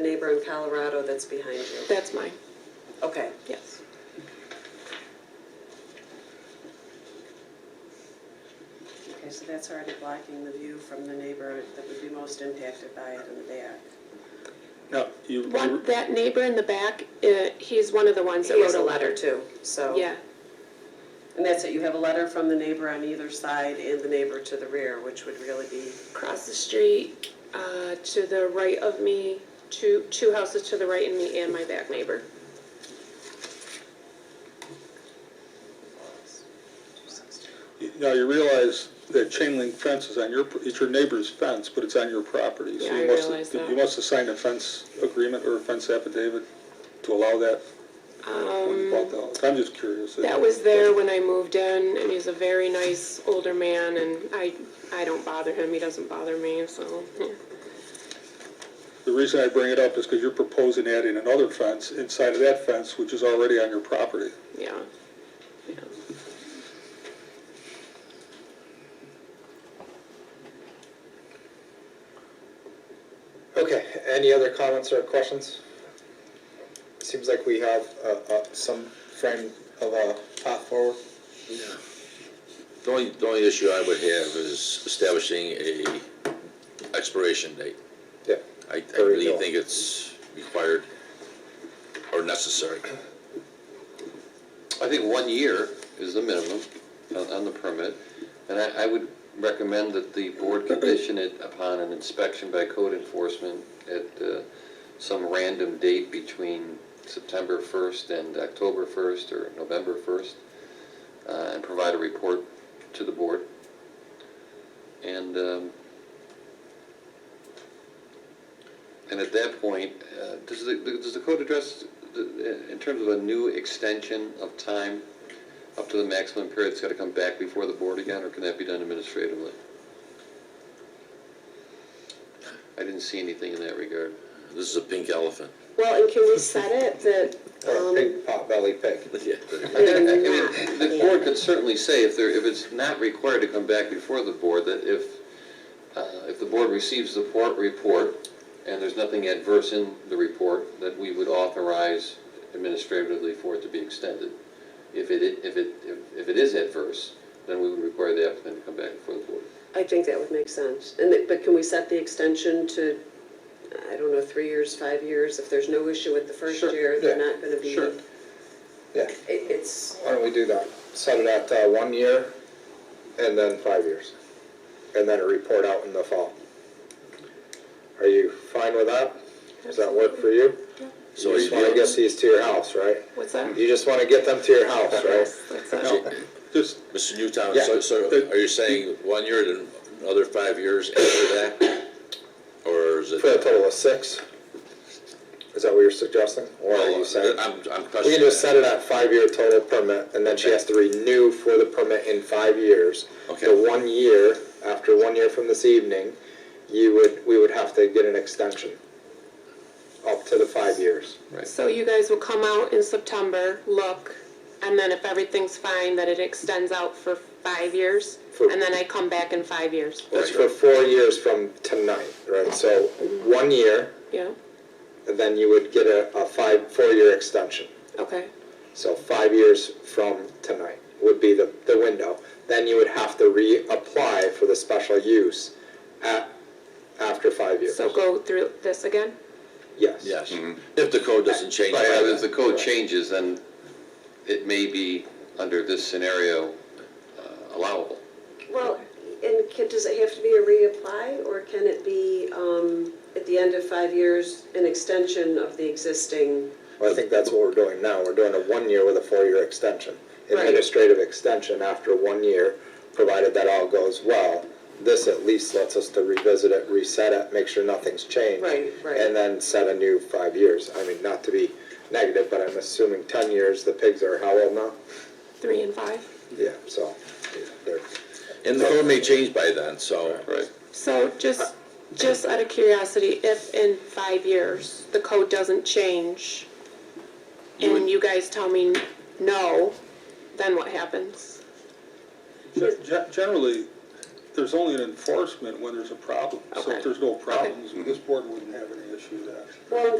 neighbor in Colorado that's behind you? That's mine, Okay. yes. Okay, so that's already blocking the view from the neighbor that would be most impacted by it in the back. No, you, One, that neighbor in the back, uh, he's one of Mm-hmm. the ones that He wrote has a letter. too, so. Yeah, And that's it, you have a letter from the neighbor on either side And the neighbor to the rear, which would really be, across the street, uh, to the right of me, two, two houses to the right of me and my back neighbor. now you realize that chain link fence is on your, it's your neighbor's fence, but it's on your property. So Yeah, you I must- realize that. You must have signed a fence agreement or a fence affidavit to allow that when you bought the house. I'm just curious. Um, That was there when I moved in, and he's a very nice older man, and I, I don't bother him, he doesn't bother me, so, yeah. The reason I bring it up is because you're proposing adding another fence inside of that fence, which is already on your property. yeah. Yeah. Okay, any other comments or questions? Seems like we have uh, uh, some frame of a path forward. The only, the only issue I would have is establishing a expiration date. Yeah. I, I There we really go. think it's required or necessary. I think one year is the minimum on, on the permit, and I, I would recommend that the board condition it upon an inspection by code enforcement at uh, some random date between September 1st and October 1st or November 1st, uh, and provide a report to the board. And, um, and at that point, uh, does the, does the code address, the- in terms of a new extension of time up to the maximum period, it's got to come back before the board again, or can that be done administratively? I didn't see anything in that regard. This is a pink elephant. Well, and can we set it that, Or a um, pig, pot belly pig. Yeah. I think, I mean, the board could certainly say, if they're, if it's not required to come back before the board, that if, uh, if the board receives the port report, and there's nothing adverse in the report, that we would authorize administratively for it to be extended. If it, if it, if- if it is adverse, then we would require the applicant to come back before the board. I think that would make sense. And, it- but can we set the extension to, I don't know, three years, five years? If there's no issue with the first Sure, year, they're yeah, not gonna be. sure. It- Yeah, It's, why don't we do that? Set it at uh, one year and then five years. And then a report out in the fall. Are you fine with that? Does that work for you? So You you just want to get these to your house, right? what's that? You just want to get them to your house, right? That's it. Now, just, Mr. Newtown, Yeah. so, so are you saying one year, then another five years after that? Or is it? For a total of six? Is that what you're suggesting? Or are you saying? I'm, I'm We can questioning. just set it at five-year total permit, and then she has to renew for the permit in five years. Okay. The one year, after one year from this evening, you would, we would have to get an extension up to the five years. So you guys will come out in September, look, and then if everything's fine, that it extends out for five years, For- and then I come back in five years. That's for four years from tonight, right? So one year, Yeah, and then you would get a, a five, four-year extension. okay, So five years from tonight would be the, the window. Then you would have to reapply for the special use at, after five years. so go through this again? Yes. Yes, if the code doesn't change. Right, by yeah, then. if the code changes, then it may be, under this scenario, uh, allowable. well, and can, does it have to be a reapply or can it be, um, at the end of five years, an extension of the existing? Well, I think that's what we're doing now. We're doing a one year with a four year extension. Right. Administrative extension after one year, provided that all goes well. This at least lets us to revisit it, reset it, make sure nothing's changed. Right, right. And then set a new five years. I mean, not to be negative, but I'm assuming ten years, the pigs are how old now? Three and five? Yeah, so, they're, And the code may change by then, so. Right. So just, just out of curiosity, if in five years the code doesn't change and you guys tell me no, then what happens? Ge- ge- Generally, there's only an enforcement when there's a problem. So Okay. if there's no problems, this board wouldn't have any issue with that. Well,